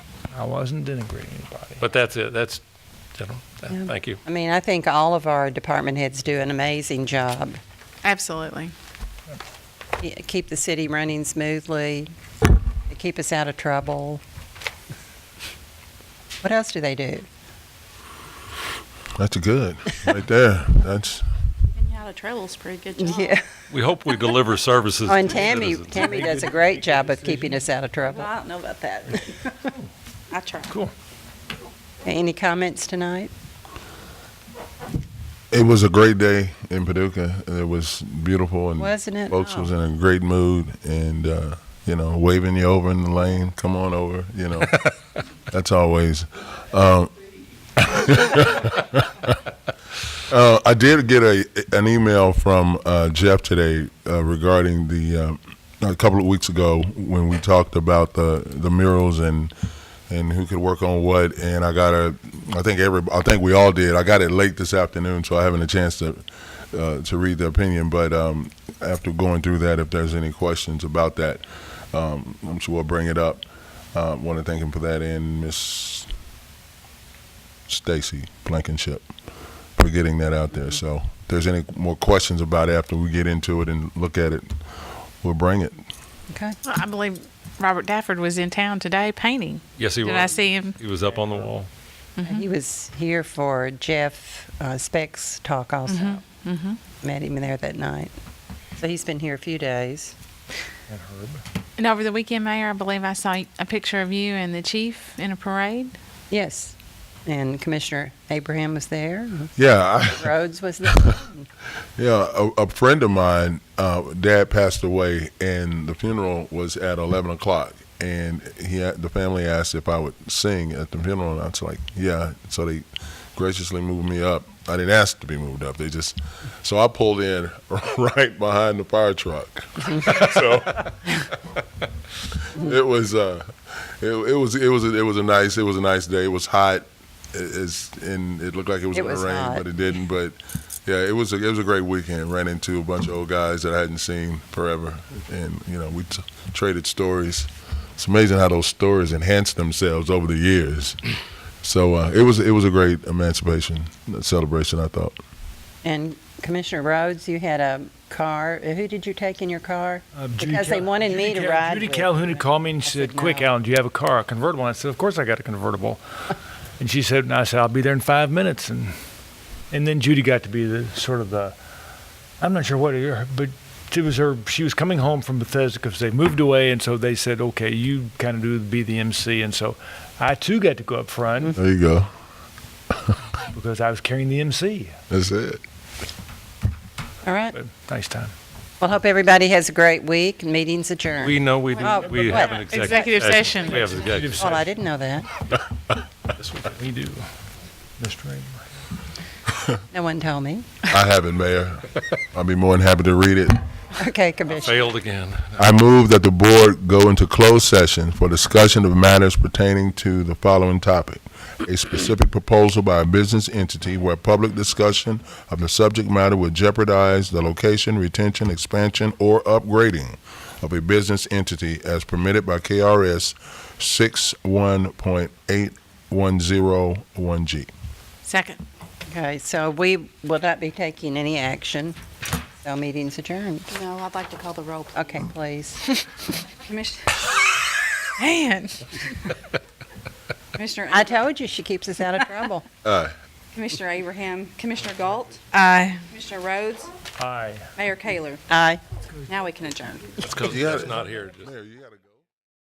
I wasn't denigrating anybody. But that's it. That's, general. Yeah. Thank you. I mean, I think all of our department heads do an amazing job. Absolutely. Yeah, Keep the city running smoothly, They keep us out of trouble. What else do they do? That's good, right there. That's And yeah, the trail's pretty good job. Yeah. We hope we deliver services. Oh, and to Tammy, citizens. Tammy does a great job of keeping us out of trouble. I don't know about that. I try. Cool. Any comments tonight? it was a great day in Paducah. and It was beautiful, and Wasn't it? folks Oh. was in a great mood, and uh, you know, waving you over in the lane. Come on over, you know. That's always. Um, uh, I did get a an email from uh, Jeff today uh, regarding the um a couple of weeks ago when we talked about the the murals and and who could work on what. And I got a I think every I think we all did. I got it late this afternoon, so I haven't a chance to uh, to read the opinion. But um, after going through that, if there's any questions about that, um, I'm sure we'll bring it up. Uh, want to thank him for that and Miss Stacy Blankenship for getting that out there. So if there's any more questions about it after we get into it and look at it, we'll bring it. Okay. Well, I believe Robert Dafford was in town today painting. Yes, he was. Did I see him? He was up on the wall. He was here for Jeff uh, Speck's talk also. Met him there that night. So he's been here a few days. And Herb. And over the weekend, Mayor, I believe I saw a picture of you and the chief in a parade. Yes. And Commissioner Abraham was there. Yeah, I, Rhodes was there. Yeah, a, a friend of mine, uh, dad passed away, and the funeral was at eleven o'clock. And he, a- the family asked if I would sing at the funeral, and I was like, "Yeah." So they graciously moved me up. I didn't ask to be moved up; they just so I pulled in right behind the fire truck. so it was, uh, it, it was, it was, it was a nice, it was a nice day. It was hot, it, it's, and it looked like it was It going was to rain, hot. but it didn't. But yeah, it was a, it was a great weekend. Ran into a bunch of old guys that I hadn't seen forever, and you know we t- traded stories. It's amazing how those stories enhance themselves over the years. So uh, it was it was a great emancipation celebration. I thought And Commissioner Rhodes, you had a car. Who did you take in your car? Uh, Judy Because they Cal- wanted Judy me to Cal- ride Judy with. Calhoun had called me and said, said, "Quick, "No." Alan, do you have a car, a convertible?" I said, "Of course I got a convertible." and she said, "And I said I'll be there in five minutes." And and then Judy got to be the sort of the I'm not sure what her, but it was her. She was coming home from Bethesda because they moved away, and so they said, "Okay, you kind of do be the MC." And so I too got to go up front Mm-hmm. there you go. because I was carrying the MC. That's it. All right. But nice time. Well, hope everybody has a great week. Meeting's adjourned. We know we Oh, do, we what? have an executive. Executive session. We have an executive. well, I didn't know that. That's what we do, Mr. Ingram. No one told me. I haven't, Mayor. I'll be more than happy to read it. Okay, Commissioner. Failed again. I move that the board go into closed session for discussion of matters pertaining to the following topic. A specific proposal by a business entity where public discussion of the subject matter would jeopardize the location, retention, expansion, or upgrading of a business entity as permitted by KRS 61.8101G. Second. Okay, so we will not be taking any action. So meeting's adjourned. No, I'd like to call the roll. Okay, please. Commissioner, Man. Commissioner, I told you she keeps us out of trouble. Commissioner Abraham, Commissioner Galt, Aye. Commissioner Rhodes, Aye. Mayor Kayler. Aye. Now we can adjourn. That's because You got it's it. not here. Just- Mayor, you gotta go.